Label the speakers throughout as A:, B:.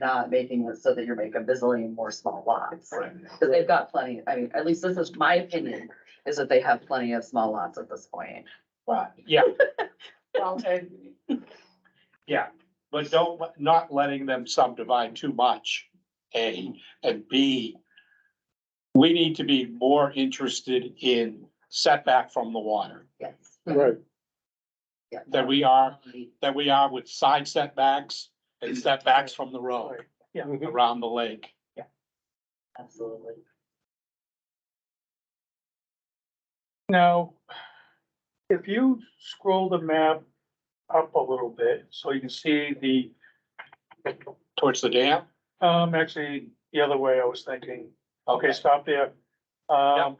A: not making it so that you're making a bazillion more small lots.
B: Right.
A: Cause they've got plenty, I mean, at least this is my opinion, is that they have plenty of small lots at this point.
B: Right.
C: Yeah,
B: Well, and,
C: yeah, but don't, let- not letting them subdivide too much, A, and B, we need to be more interested in setback from the water
A: Yes.
D: Right,
A: Yeah.
C: than we are, than we are with side setbacks and setbacks from the road
D: mhm.
C: around the lake.
A: Absolutely.
B: now, if you scroll the map up a little bit, so you can see the,
C: Towards the dam?
B: um, actually, the other way I was thinking. Okay, stop there. Um,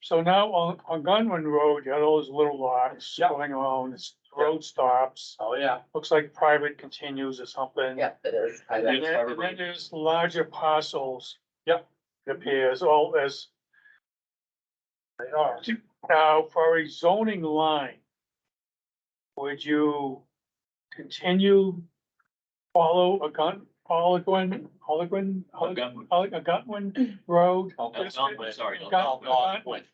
B: so now on, on Gunwin Road, you had all those little lots
C: Yeah.
B: going along, this road stops,
C: Oh, yeah.
B: looks like private continues or something.
A: Yeah, it is. I
B: And
A: bet.
B: then, and then there's larger parcels.
C: Yep.
B: It Appears all as. They are. Now, for a zoning line. Would you continue, follow a gun, Oligwin, Oligwin,
E: Oh,
B: Olig-
E: gun-
B: Olig- a Gutwin Road?
C: Oh,
E: oh, gun win, sorry.
B: Gun-
E: gun-
B: gun win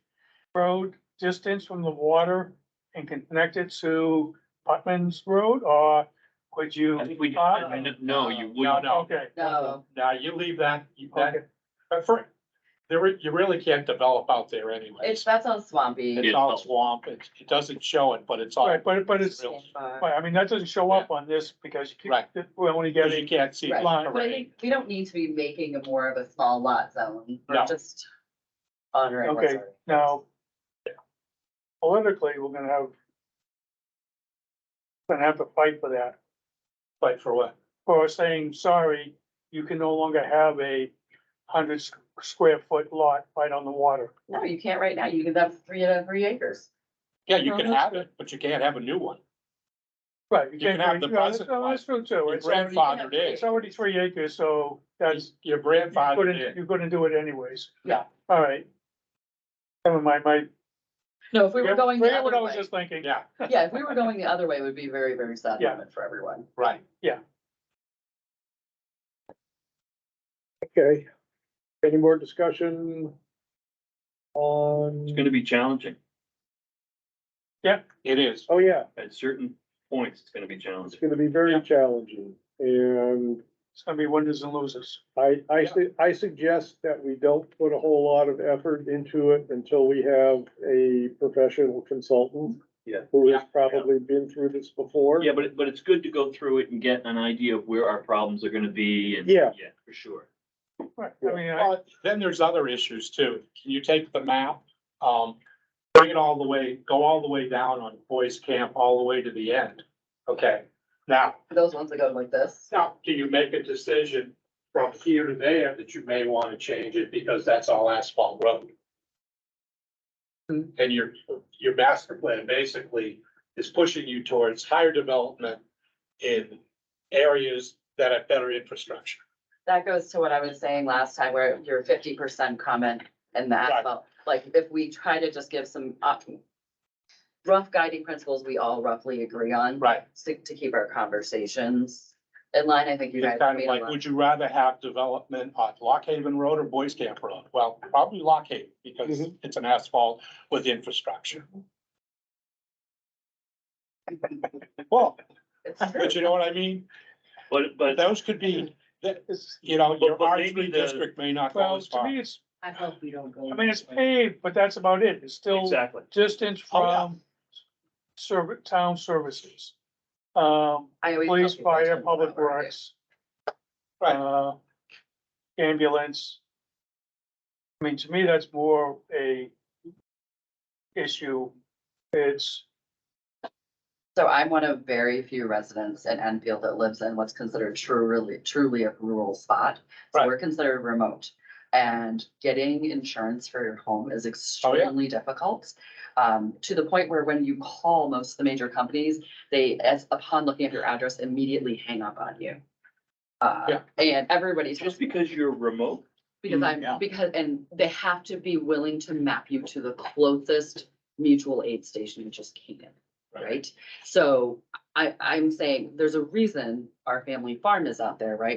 B: Road, distance from the water and connect it to Putman's Road, or would you?
E: I think we,
B: Uh,
E: no,
C: No,
E: you wouldn't.
C: no,
B: Okay.
A: No,
C: now you leave that, you-
B: Okay.
C: that, but for, there, re- you really can't develop out there
A: it's,
C: anyways.
A: that sounds swampy.
C: It's all swamp, it, it doesn't show it, but it's all.
B: Right, but, but it's,
C: real-
B: but I mean, that doesn't show up on this because you
C: Right.
B: keep, we're only
C: Because you
B: getting,
C: can't see. it.
B: Right.
A: But I
C: Correct.
A: think we don't need to be making a more of a small lot zone,
C: No.
A: we're just honoring what's
B: Okay,
A: already-
B: now. Politically, we're gonna have. Gonna have to fight for that,
C: But for what?
B: for saying, sorry, you can no longer have a hundred s- square foot lot right on the water.
A: No, you can't right now, you can, that's three, uh, three acres.
C: Yeah, you can have it, but you can't have a new one.
B: Right.
C: You can have the
B: Yeah, that's-
C: present
B: no, That's true too,
C: Your
B: it's already,
C: grandfathered
B: it's
C: in,
B: already three acres, so that's,
C: your
B: you're
C: grandfathered
B: gonna,
C: in.
B: you're gonna do it anyways.
A: Yeah.
B: All right. Never mind, my.
A: No, if we were going the
B: Forget what I
A: other
B: was
A: way,
B: just thinking.
C: Yeah,
A: yeah, if we were going the other way, it would be very, very sad
B: Yeah.
A: moment for everyone.
C: right.
D: okay. Any more discussion
E: It's
D: on,
E: gonna be challenging.
C: It is.
D: oh yeah,
E: At certain points, it's gonna be
D: it's
E: challenging.
D: gonna be very challenging. And
B: It's gonna be winners and losers.
D: I, I, su- I suggest that we don't put a whole lot of effort into it until we have a professional consultant.
E: Yeah.
D: Who has
C: Yeah.
D: probably been through this before.
E: Yeah, but, it- but it's good to go through it and get an idea of where our problems are gonna be and.
D: Yeah.
E: Yeah, for sure.
B: Right, I mean, I,
C: But then there's other issues too. Can you take the map, um, bring it all the way, go all the way down on Boys Camp, all the way to the end? Okay, now,
A: Those ones that go like this,
C: now, do you make a decision from here to there that you may wanna change it because that's all asphalt road? And your, your master plan basically is pushing you towards higher development in areas that have better infrastructure.
A: that goes to what I was saying last time where your fifty percent comment and the
C: Right.
A: asphalt, like if we try to just give some uh, rough guiding principles we all roughly agree on,
C: Right,
A: to, to keep our conversations in line, I think you guys.
C: it's kind of
A: made a
C: like,
A: lot.
C: would you rather have development on Lock Haven Road or Boys Camp Road? Well, probably Lock Haven, because it's an asphalt with infrastructure. Well,
A: It's true.
C: but you know what I mean?
E: But, but.
C: Those could be, that, you know,
E: But-
C: your
E: but
C: R
E: maybe
C: three
E: the-
C: district may not go
B: well,
C: as
B: to
C: far.
B: me, it's,
A: I hope we don't go.
B: I mean, it's paved, but that's about it. It's still
E: Exactly.
B: distance
C: Oh, yeah.
B: from serv- town services. Um,
A: I always. tell
B: police,
A: people that's
B: fire,
A: what
B: public
A: we're doing.
B: works.
C: Right.
B: uh, Ambulance. I mean, to me, that's more a issue. It's,
A: So I'm one of very few residents in Enfield that lives in what's considered truly, truly a rural spot. So
C: Right.
A: we're considered remote and getting insurance for your home
C: Oh,
A: is extremely difficult. Um, to the point where when you call most of the major companies, they, as upon looking at your address, immediately hang up on you. Uh,
C: Yeah.
A: and everybody's.
E: Just because you're remote,
A: Because
C: Mm,
A: I'm,
C: yeah.
A: because, and they have to be willing to map you to the closest mutual aid station, which is Canaan,
C: Right.
A: right? So I, I'm saying there's a reason our family farm is out there, right?